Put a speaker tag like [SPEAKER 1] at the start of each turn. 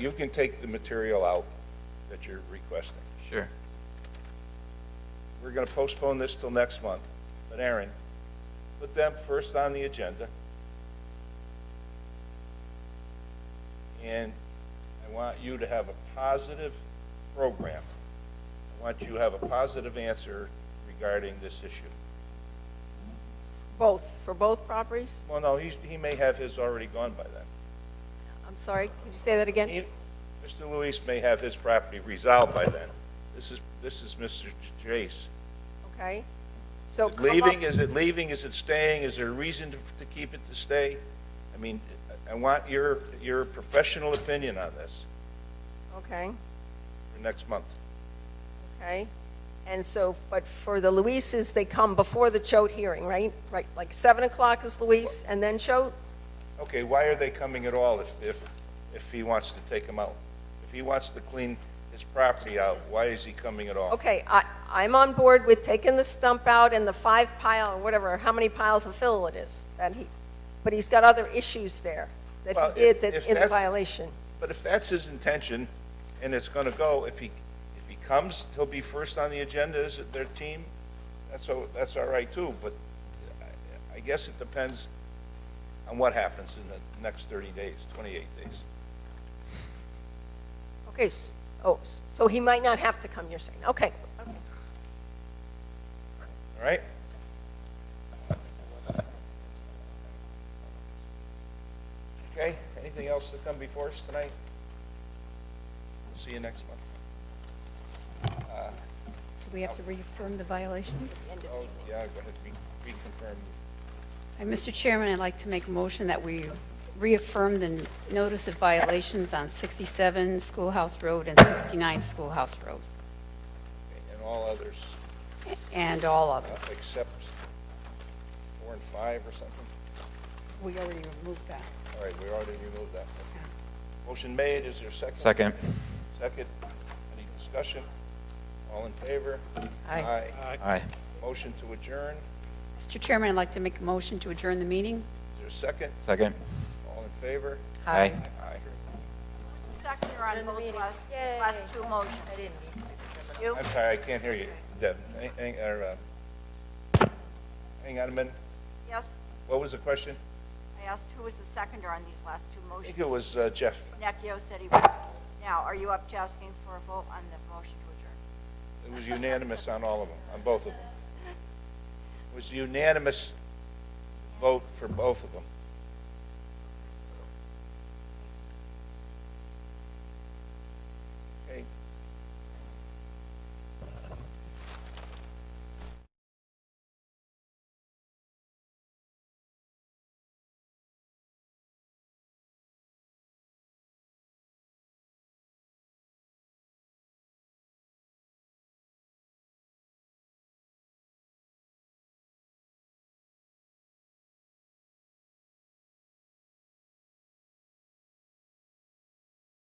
[SPEAKER 1] you can take the material out that you're requesting.
[SPEAKER 2] Sure.
[SPEAKER 1] We're going to postpone this till next month, but Aaron, put them first on the agenda. And I want you to have a positive program. I want you to have a positive answer regarding this issue.
[SPEAKER 3] Both, for both properties?
[SPEAKER 1] Well, no, he's, he may have his already gone by then.
[SPEAKER 3] I'm sorry, could you say that again?
[SPEAKER 1] He- Mr. Luis may have his property resolved by then. This is, this is Mr. Jace.
[SPEAKER 3] Okay. So
[SPEAKER 1] Is it
[SPEAKER 3] Oh, come up-
[SPEAKER 1] Leaving, is it leaving, is it staying, is there a reason to to keep it to stay? I mean, I I want your, your professional opinion on this
[SPEAKER 3] Okay,
[SPEAKER 1] for next month.
[SPEAKER 3] okay. And so, but for the Luises, they come before the Choate hearing, right? Right, like 7 o'clock is Luis, and then Choate?
[SPEAKER 1] Okay, why are they coming at all if, if, if he wants to take them out? If he wants to clean his property out, why is he coming at all?
[SPEAKER 3] Okay, I, I'm on board with taking the stump out and the five pile, or whatever, how many piles of fill it is that he, but he's got other issues there that
[SPEAKER 1] Well,
[SPEAKER 3] he
[SPEAKER 1] if-
[SPEAKER 3] did that's
[SPEAKER 1] if
[SPEAKER 3] in
[SPEAKER 1] that's-
[SPEAKER 3] violation.
[SPEAKER 1] But if that's his intention, and it's gonna go, if he, if he comes, he'll be first on the agenda as their team, that's, all- that's all right too, but I- I guess it depends on what happens in the next thirty days, twenty-eight days.
[SPEAKER 3] Okay, s- oh, s- so he might not have to come, you're saying, okay.
[SPEAKER 1] All right? Okay, anything else to come before us tonight? We'll See you next month.
[SPEAKER 4] Do we have to reaffirm the violations?
[SPEAKER 1] Oh, yeah, go ahead, re- reconfirm.
[SPEAKER 4] Uh, Mr. Chairman, I'd like to make a motion that we reaffirm the n- notice of violations on 67 Schoolhouse Road and 69 Schoolhouse Road,
[SPEAKER 1] And all others,
[SPEAKER 4] a- and all
[SPEAKER 1] uh,
[SPEAKER 4] others.
[SPEAKER 1] except four and five or something?
[SPEAKER 4] We already removed that.
[SPEAKER 1] All right, we already removed that. Motion made, is there a second?
[SPEAKER 2] Second.
[SPEAKER 1] Second, any discussion? All in favor?
[SPEAKER 4] Aye.
[SPEAKER 2] Aye.
[SPEAKER 1] Motion to adjourn,
[SPEAKER 4] Mr. Chairman, I'd like to make a motion to adjourn the meeting.
[SPEAKER 1] is there a second?
[SPEAKER 2] Second.
[SPEAKER 1] All in favor?
[SPEAKER 2] Aye.
[SPEAKER 1] Aye.
[SPEAKER 3] Second, on those last, last two motions. I didn't need to. You?
[SPEAKER 1] I'm sorry, I can't hear you, Deb. Hang- Hang, or, uh, hang on a minute,
[SPEAKER 5] Yes,
[SPEAKER 1] what was the question?
[SPEAKER 5] I asked who was the seconder on these last two
[SPEAKER 1] I
[SPEAKER 5] motions.
[SPEAKER 1] think it was uh, Jeff.
[SPEAKER 5] Necchio said he was. Now, are you up to asking for a vote on the motion to adjourn?
[SPEAKER 1] It was unanimous on all of them, on both of them. It was unanimous vote for both of them.